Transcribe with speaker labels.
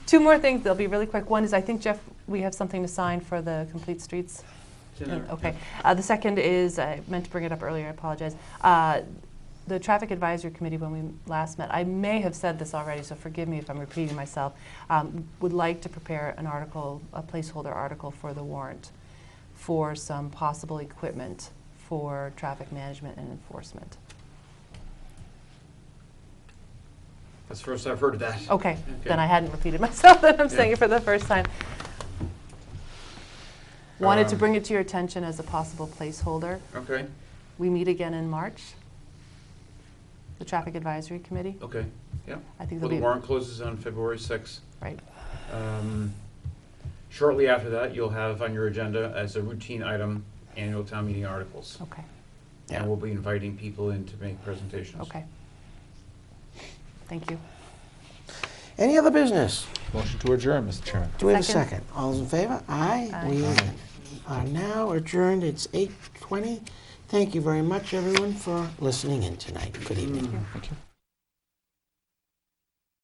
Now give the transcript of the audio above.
Speaker 1: Two more things, they'll be really quick. One is, I think, Jeff, we have something to sign for the Complete Streets. Yeah, Okay. Uh, The second is, I meant to bring it up earlier, I apologize. Uh, The Traffic Advisory Committee, when we last met, I may have said this already, so forgive me if I'm repeating myself, um, would like to prepare an article, a placeholder article for the warrant for some possible equipment for traffic management and enforcement.
Speaker 2: That's the first I've heard of that.
Speaker 1: Okay, then
Speaker 2: Okay.
Speaker 1: I hadn't repeated myself, then I'm saying
Speaker 2: Yeah.
Speaker 1: it for the first time. Wanted to
Speaker 2: Um,
Speaker 1: bring it to your attention as a possible placeholder.
Speaker 2: Okay,
Speaker 1: We meet again in March, the Traffic Advisory Committee.
Speaker 2: okay, yeah.
Speaker 1: I think there'll
Speaker 2: Well, Oh, the
Speaker 1: be,
Speaker 2: warrant closes on February 6th.
Speaker 1: right,
Speaker 2: Um, Shortly after that, you'll have on your agenda as a routine item, annual town meeting articles.
Speaker 1: okay,
Speaker 2: And we'll be inviting people in to make presentations.
Speaker 1: okay. Thank you.
Speaker 3: Any other business?
Speaker 4: Motion to adjourn, Mr. Chairman.
Speaker 3: Do we have a
Speaker 1: Second.
Speaker 3: second? All those in favor? Aye.
Speaker 1: Aye.
Speaker 3: We are now adjourned. It's 8:20. Thank you very much, everyone, for listening in tonight. Good evening.
Speaker 4: Thank you.